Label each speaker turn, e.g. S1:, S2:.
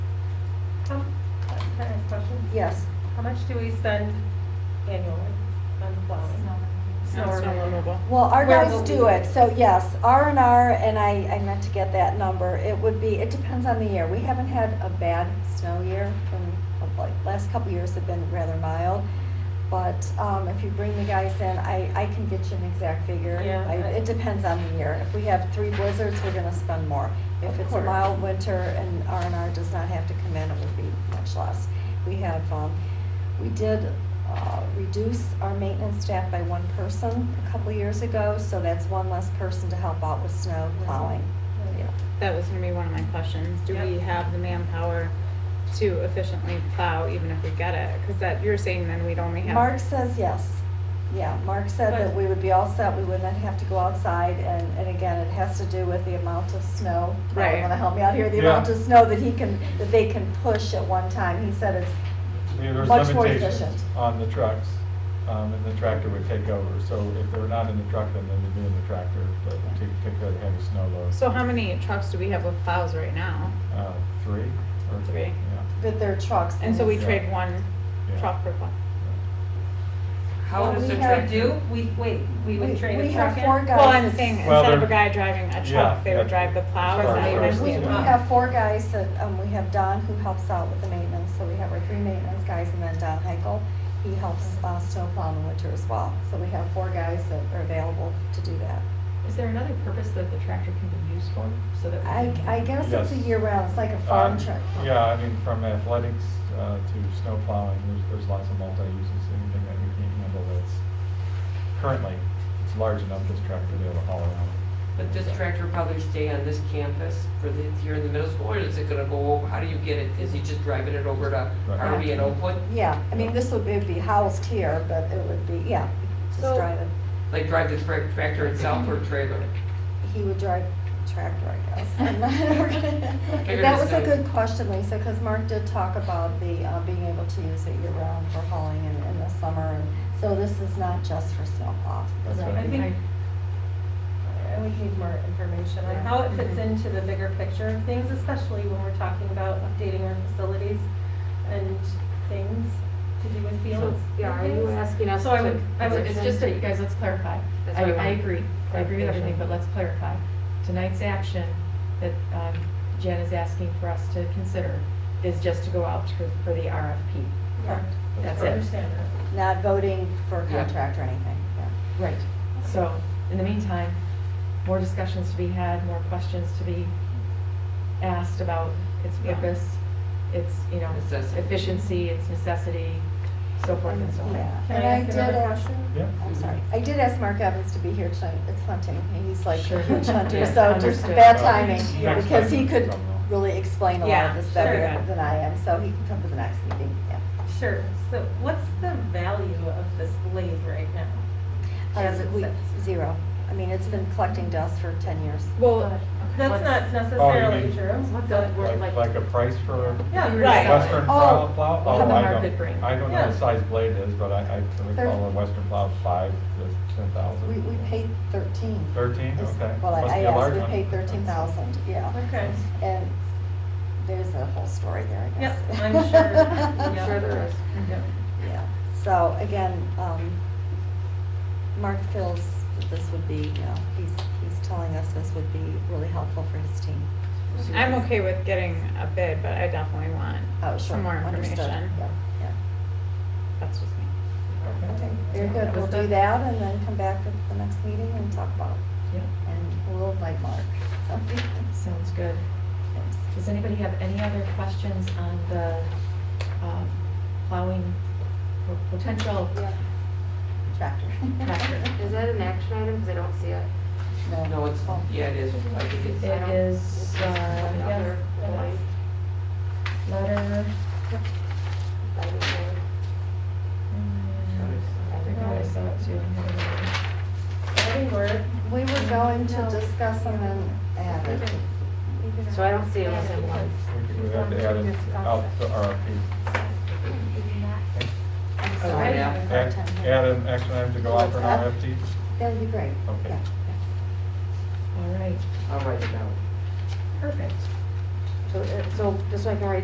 S1: How- Um, Can I ask a question?
S2: Yes,
S1: How much do we spend annually on plowing? Snow removal.
S2: well, our
S1: Where will
S2: guys do
S1: we-
S2: it, so yes, R and R, and I, I meant to get that number, it would be, it depends on the year. We haven't had a bad snow year, from, like, last couple years have been rather mild. But, um, if you bring the guys in, I, I can get you an exact figure.
S1: Yeah,
S2: I-
S1: I-
S2: It depends on the year. If we have three blizzards, we're gonna spend more. If
S1: Of
S2: it's a
S1: course.
S2: mild winter and R and R does not have to come in, it would be much less. We have, um, We did uh, reduce our maintenance staff by one person a couple years ago, so that's one less person to help out with snow plowing. Yeah.
S3: That was gonna be one of my questions. Do we
S1: Yep.
S3: have the manpower to efficiently plow even if we get it? Cause that, you're saying then we'd only have.
S2: Mark says yes. Yeah, Mark said that we would be all set, we would not have to go outside, and, and again, it has to do with the amount of snow. Probably
S3: Right.
S2: wanna help me out here, the
S4: Yeah.
S2: amount of snow that he can, that they can push at one time. He said it's
S4: I mean, there's
S2: Much more
S4: limitations
S2: efficient.
S4: on the trucks, um, and the tractor would take over. So if they were not in the truck, then they'd be in the tractor to to take care of the heavy snow load.
S3: So how many trucks do we have with plows right now?
S4: Uh, Three or?
S3: Three.
S4: Yeah.
S2: that their trucks.
S3: And so we
S4: Yeah.
S3: trade one
S4: yeah. Um,
S3: truck for plow.
S2: Well,
S1: How does
S2: we
S1: a
S2: have-
S1: truck do? We, wait, we
S2: We-
S1: would trade
S2: we
S1: a
S2: have
S1: truck in?
S2: four guys.
S3: Well, I'm saying,
S4: Well,
S3: instead of a
S4: they're-
S3: guy driving a
S4: Yeah,
S3: truck, they would
S4: yeah.
S3: drive the plow. Is
S4: Truck
S3: that what I'm
S4: versus
S2: We, we
S3: saying?
S4: plow.
S2: have four guys that, um, we have Don who helps out with the maintenance, so we have our three maintenance guys and then Don Heichel. He helps, uh, snow plow in the winter as well, so we have four guys that are available to do that.
S5: Is there another purpose that the tractor can be used for, so that? we
S2: I,
S5: can-
S2: I guess it's a
S4: Yes.
S2: year round, it's like a farm
S4: Um,
S2: truck.
S4: Yeah, I mean, from athletics uh, to snow plowing, there's, there's lots of multi-uses, anything that we can handle that's currently, it's large enough, this tractor to be able to haul around.
S6: But this tractor will probably stay on this campus for the, here in the middle school, or is it gonna go over, how do you get it? Is he just driving it over to
S4: Right.
S6: RV in Oakwood?
S2: Yeah, I mean, this would be, be housed here, but it would be, yeah, just
S3: So-
S2: drive it.
S6: Like drive the tra- tractor itself or trailer?
S2: He would drive tractor, I guess. I'm not-
S6: Figured
S2: That
S6: it's
S2: was a
S6: a-
S2: good question, Lisa, because Mark did talk about the, uh, being able to use it year-round for hauling in, in the summer. and So this is not just for snow plow.
S4: That's
S2: Right.
S4: right.
S1: I think, I would need more information on how it fits into the bigger picture of things, especially when we're talking about updating our facilities and things to do with fields.
S7: Yeah, are
S1: and
S7: you
S1: things.
S7: asking us
S1: So
S7: to?
S1: I would- I would
S7: It's
S1: then
S7: just that,
S1: take-
S7: you guys, let's clarify.
S3: That's
S7: I,
S3: what I
S7: I
S3: want.
S7: agree, I agree with
S3: Clarification.
S7: everything, but let's clarify. Tonight's action that um, Jen is asking for us to consider is just to go out for, for the RFP.
S1: Correct.
S7: That's
S1: I
S7: it.
S1: Understand that.
S2: Not voting for a
S6: Yeah.
S2: contract or anything, yeah.
S7: Right, so, in the meantime, more discussions to be had, more questions to be asked about its
S3: Yeah.
S7: purpose, its, you know,
S6: Necessity.
S7: efficiency, its necessity, so forth and so on.
S2: Yeah,
S1: Can
S2: and
S1: I
S2: I
S1: ask
S2: did
S1: another
S2: ask,
S4: Yeah.
S2: I'm sorry, I did ask Mark Evans to be here tonight, it's hunting, and he's like a
S7: Sure.
S2: huge hunter,
S7: Yes,
S2: so just
S7: understood.
S2: bad timing,
S4: Yeah.
S2: because he could
S4: Problem.
S2: really explain a lot
S3: Yeah,
S2: of this
S3: sure.
S2: better than I am, so he can come to the next meeting, yeah.
S1: Sure, so what's the value of this lathe right now? As
S2: Uh,
S1: it
S2: we-
S1: sits.
S2: Zero, I mean, it's been collecting dust for ten years.
S3: Well,
S1: That's not necessarily
S4: mean-
S1: true.
S7: What's
S1: but-
S7: that word
S4: Like, like a price for
S1: Yeah,
S7: You're
S3: right.
S2: Oh.
S4: Western plow, plow?
S7: What would the
S4: Oh, I don't-
S7: market bring?
S4: I don't know
S1: Yeah.
S4: what size blade is, but I, I can
S2: Thir-
S4: recall a Western plow five to ten thousand.
S2: We, we paid thirteen.
S4: Thirteen,
S2: is-
S4: okay.
S2: Well, I
S4: Must
S2: I
S4: be a large
S2: asked, we
S4: one.
S2: paid thirteen thousand, yeah,
S1: Okay,
S2: and there's a whole story there, I guess.
S1: yep, I'm sure.
S2: Yeah.
S1: Yep.
S3: sure there is.
S1: Yep.
S2: Yeah, so again, um, Mark feels that this would be, you know, he's, he's telling us this would be really helpful for his team.
S3: I'm okay with getting a bid, but I definitely want
S2: Oh, sure,
S3: some more
S2: understood,
S3: information.
S2: yeah, yeah.
S3: That's just me.
S4: Okay.
S2: Okay, very good,
S7: That
S2: we'll
S7: was
S2: do
S7: done.
S2: that and then come back at the next meeting and talk about it,
S7: Yeah,
S2: and we'll invite Mark. So,
S7: sounds good.
S2: thanks.
S7: Does anybody have any other questions on the um, plowing po- potential?
S2: Tractor.
S7: Tractor.
S5: Is that an action item, because I don't see it?
S6: No, it's, yeah, it is, I think it's.
S7: It is, uh, yes,
S5: Yes.
S7: letter. mm, I forgot I saw it too. I had it over.
S1: Any word?
S2: We were going to
S1: No.
S2: discuss them and add it.
S5: So I don't see it as a one.
S4: We could- We have to add it out to RFP.
S2: I'm
S6: Oh,
S2: sorry. I
S6: yeah.
S4: Add,
S2: have a hard time
S4: add
S2: hearing.
S4: an action item to go out for an RFP?
S2: That'd be great,
S4: Okay.
S2: yeah.
S7: All right,
S6: I'll write it down.
S7: perfect.
S5: So, uh, so just so I can write